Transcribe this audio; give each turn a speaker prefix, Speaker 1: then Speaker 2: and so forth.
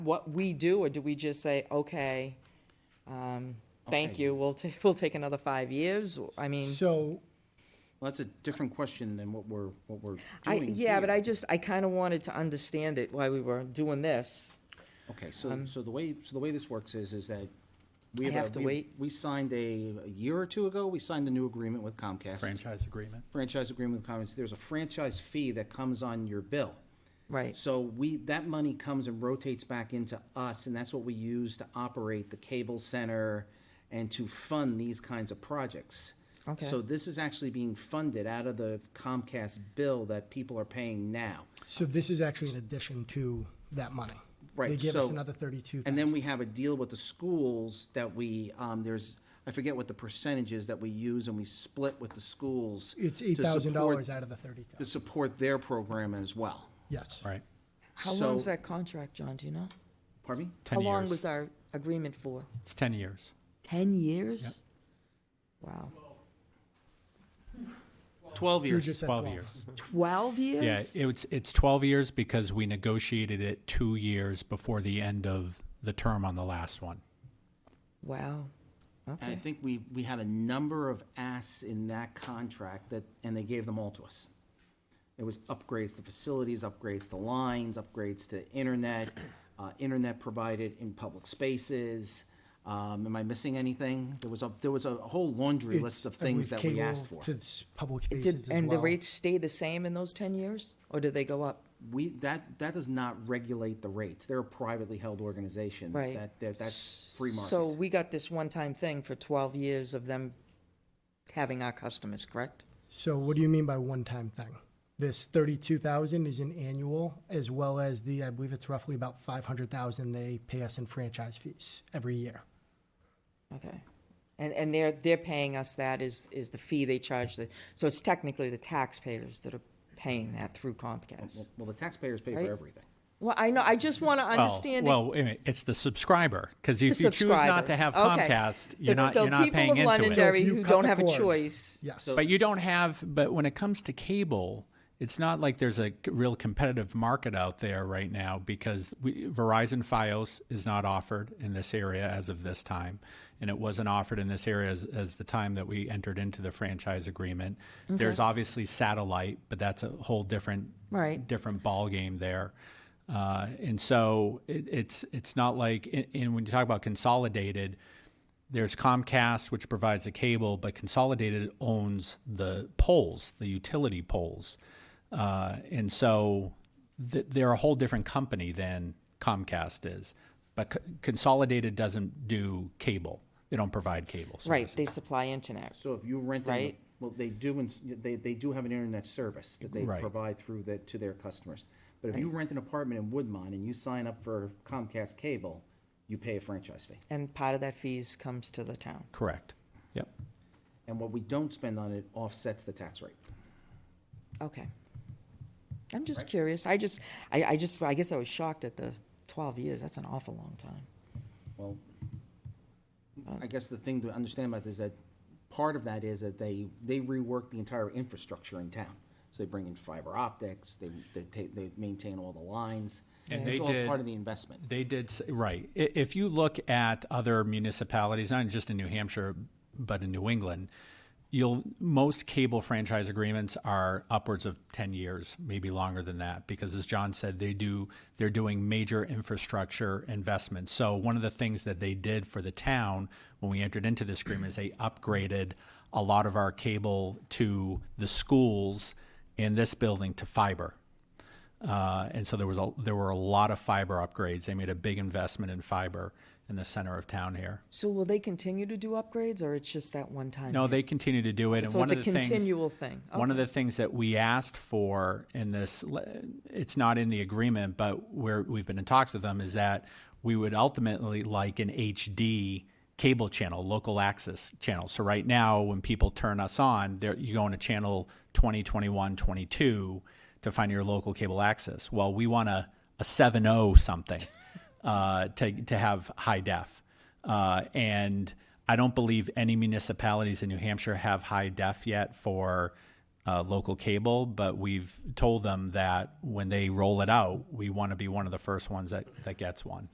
Speaker 1: what we do, or do we just say, okay, um, thank
Speaker 2: Okay.
Speaker 1: you, we'll, ta- we'll take another five years? I mean,
Speaker 3: So,
Speaker 2: Well, that's a different question than what we're, what we're
Speaker 1: I,
Speaker 2: doing
Speaker 1: yeah, but
Speaker 2: here.
Speaker 1: I just, I kind of wanted to understand it why we were doing this.
Speaker 2: Okay, so, so the way, so the way this works is, is that we
Speaker 1: Um, I
Speaker 2: have. a-
Speaker 1: have to
Speaker 2: we-
Speaker 1: wait.
Speaker 2: We signed a, a year or two ago, we signed the new agreement with Comcast.
Speaker 4: franchise agreement.
Speaker 2: Franchise agreement with Comcast. There's a franchise fee that comes on your bill.
Speaker 1: Right.
Speaker 2: So we, that money comes and rotates back into us, and that's what we use to operate the cable center and to fund these kinds of projects.
Speaker 1: Okay.
Speaker 2: So this is actually being funded out of the Comcast bill that people are paying now.
Speaker 3: so this is actually an addition to that money. They
Speaker 2: Right,
Speaker 3: give us
Speaker 2: so-
Speaker 3: another thirty-two
Speaker 2: And then
Speaker 3: thousand.
Speaker 2: we have a deal with the schools that we, um, there's, I forget what the percentage is that we use and we split with the schools.
Speaker 3: It's
Speaker 2: to
Speaker 3: eight thousand dollars
Speaker 2: support-
Speaker 3: out of the thirty
Speaker 2: To
Speaker 3: thousand,
Speaker 2: support their program as well.
Speaker 3: yes.
Speaker 4: Right.
Speaker 1: How
Speaker 2: So-
Speaker 1: long's that contract, John, do you know?
Speaker 2: Pardon me?
Speaker 4: 10
Speaker 1: How long
Speaker 4: years.
Speaker 1: was our agreement for?
Speaker 4: It's 10 years.
Speaker 1: 10 years? Wow.
Speaker 2: 12
Speaker 3: You
Speaker 2: years.
Speaker 3: just said
Speaker 4: 12 years.
Speaker 1: 12
Speaker 4: Yeah,
Speaker 1: years?
Speaker 4: it's, it's 12 years because we negotiated it two years before the end of the term on the last one.
Speaker 1: Wow.
Speaker 2: And I
Speaker 1: Okay.
Speaker 2: think we, we had a number of asks in that contract that, and they gave them all to us. It was upgrades to facilities, upgrades to lines, upgrades to internet, uh, internet provided in public spaces. Um, am I missing anything? There was a, there was a whole laundry list of
Speaker 3: I believe
Speaker 2: things that we
Speaker 3: cable
Speaker 2: asked for.
Speaker 3: To s- public spaces
Speaker 1: Did,
Speaker 3: as
Speaker 1: and the
Speaker 3: well.
Speaker 1: rates stay the same in those 10 years, or did they go up?
Speaker 2: We, that, that does not regulate the rates. They're a privately held organization.
Speaker 1: Right.
Speaker 2: That, that, that's free market.
Speaker 1: So we got this one-time thing for 12 years of them having our customers, correct?
Speaker 3: So what do you mean by one-time thing? This thirty-two thousand is an annual, as well as the, I believe it's roughly about five hundred thousand they pay us in franchise fees every year.
Speaker 1: Okay. And, and they're, they're paying us that is, is the fee they charge the, so it's technically the taxpayers that are paying that through Comcast.
Speaker 2: Well, the taxpayers pay for
Speaker 1: Right.
Speaker 2: everything.
Speaker 1: Well, I know, I just want to
Speaker 4: Well,
Speaker 1: understand it
Speaker 4: Well, wait a minute, it's the subscriber, because if
Speaker 1: The
Speaker 4: you choose not
Speaker 1: subscriber.
Speaker 4: to have
Speaker 1: Okay.
Speaker 4: Comcast,
Speaker 1: The-
Speaker 4: you're not,
Speaker 1: the
Speaker 4: you're not
Speaker 1: people
Speaker 4: paying
Speaker 1: of
Speaker 4: into it.
Speaker 1: Londonderry
Speaker 3: So if you
Speaker 1: who
Speaker 3: cut
Speaker 1: don't
Speaker 3: the
Speaker 1: have a
Speaker 3: cord-
Speaker 1: choice.
Speaker 3: Yes.
Speaker 4: But you don't have, but when it comes to cable, it's not like there's a c- real competitive market out there right now because we, Verizon Fios is not offered in this area as of this time. And it wasn't offered in this area as, as the time that we entered into the franchise agreement. There's obviously satellite, but that's a whole different,
Speaker 1: Right.
Speaker 4: different ballgame there. Uh, and so it, it's, it's not like, and- and when you talk about consolidated, there's Comcast, which provides the cable, but Consolidated owns the poles, the utility poles. Uh, and so th- they're a whole different company than Comcast is. But C- Consolidated doesn't do cable, they don't provide cable.
Speaker 1: Right,
Speaker 4: service.
Speaker 1: they supply internet.
Speaker 2: So if you rent,
Speaker 1: Right.
Speaker 2: well, they do, ins- they, they do have an internet service that they
Speaker 4: Right.
Speaker 2: provide through that, to their customers. But if you rent an apartment in Woodmont and you sign up for Comcast Cable, you pay a franchise fee.
Speaker 1: And part of that fees comes to the town.
Speaker 4: Correct. Yep.
Speaker 2: And what we don't spend on it offsets the tax rate.
Speaker 1: Okay. I'm just curious. I just, I, I just, I guess I was shocked at the 12 years. That's an awful long time.
Speaker 2: Well, I guess the thing to understand about this is that part of that is that they, they rework the entire infrastructure in town. So they bring in fiber optics, they, they take, they maintain all the lines.
Speaker 4: And
Speaker 2: It's
Speaker 4: they
Speaker 2: all
Speaker 4: did-
Speaker 2: Part of the investment.
Speaker 4: They did, s- right. I- If you look at other municipalities, not just in New Hampshire, but in New England, you'll, most cable franchise agreements are upwards of 10 years, maybe longer than that, because as John said, they do, they're doing major infrastructure investments. So one of the things that they did for the town when we entered into this agreement is they upgraded a lot of our cable to the schools in this building to fiber. Uh, and so there was a, there were a lot of fiber upgrades. They made a big investment in fiber in the center of town here.
Speaker 1: So will they continue to do upgrades or it's just that one time?
Speaker 4: No,
Speaker 1: deal?
Speaker 4: they continue to do it. And
Speaker 1: So
Speaker 4: one
Speaker 1: it's a
Speaker 4: of the things,
Speaker 1: continual thing.
Speaker 4: one of
Speaker 1: Okay.
Speaker 4: the things that we asked for in this, le- it's not in the agreement, but where we've been in talks with them is that we would ultimately like an HD cable channel, local access channel. So right now, when people turn us on, they're, you go into channel 20, 21, 22 to find your local cable access. Well, we want a, a 7.0 something uh, to, to have high def. Uh, and I don't believe any municipalities in New Hampshire have high def yet for uh, local cable, but we've told them that when they roll it out, we want to be one of the first ones that, that gets one.